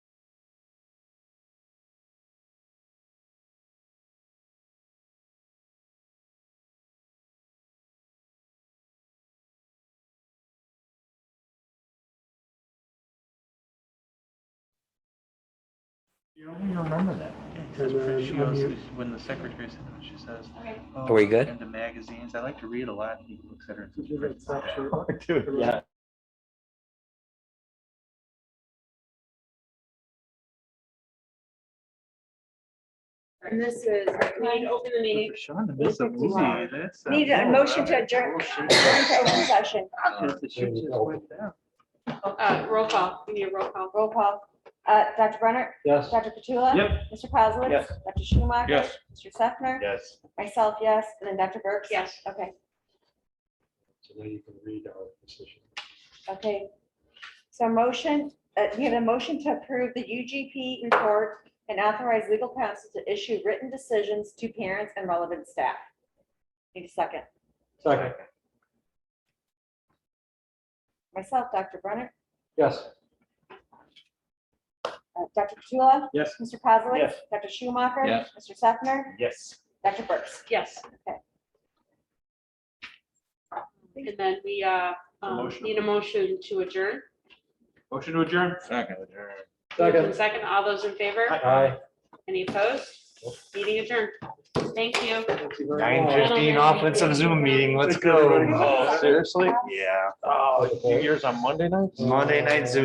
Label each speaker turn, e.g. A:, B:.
A: You don't even remember that. That's
B: And, uh,
A: pretty- She
B: I'm
A: goes,
B: here.
A: when the secretary said, that, she says.
C: Okay.
A: "Oh,
D: we
A: I'm
D: good?
A: Into magazines. I like to read a lot. and He looks at her. and
B: Did
A: says,
B: you have that
A: "Pretty."
B: snapshot?
A: Dude, yeah.
E: And this is,
C: Ryan, open the meeting.
A: For Sean to miss a movie, that's. uh,
E: need a
A: no,
E: motion to
A: that-
E: adjourn,
A: bullshit.
E: adjourn to open session.
A: Because the shit just went down.
C: Uh, roll call, we need a roll call.
E: Roll call. Uh, Dr. Brenner?
B: Yes.
E: Dr. Petula?
A: Yep.
E: Mr. Kozowitz?
A: Yes.
E: Dr. Schumacher?
A: Yes.
E: Mr. Sefner?
A: Yes.
E: Myself, yes. And then Dr. Burks?
C: Yes.
E: Okay,
B: So now you can read our decision.
E: okay. So motion, uh, we have a motion to approve the UGP report and authorize legal counsel to issue written decisions to parents and relevant staff. Need a second.
B: Second,
E: Myself, Dr. Brenner,
B: yes.
E: uh, Dr. Petula?
A: Yes.
E: Mr. Kozowitz?
B: Yes.
E: Dr. Schumacher?
A: Yes.
E: Mr. Sefner?
A: Yes.
E: Dr. Burks?
C: Yes.
E: Okay.
C: And then we, uh, um,
A: Motion.
C: need a motion to adjourn.
A: Motion to adjourn. Second.
C: Moved in Second, all those in favor?
B: Aye.
C: Any opposed? Meeting adjourned. Thank you.
F: Nine fifteen off with some Zoom meeting, let's go.
A: Oh,
F: Seriously?
A: Yeah. Oh, yours on Monday night?
F: Monday night Zoom.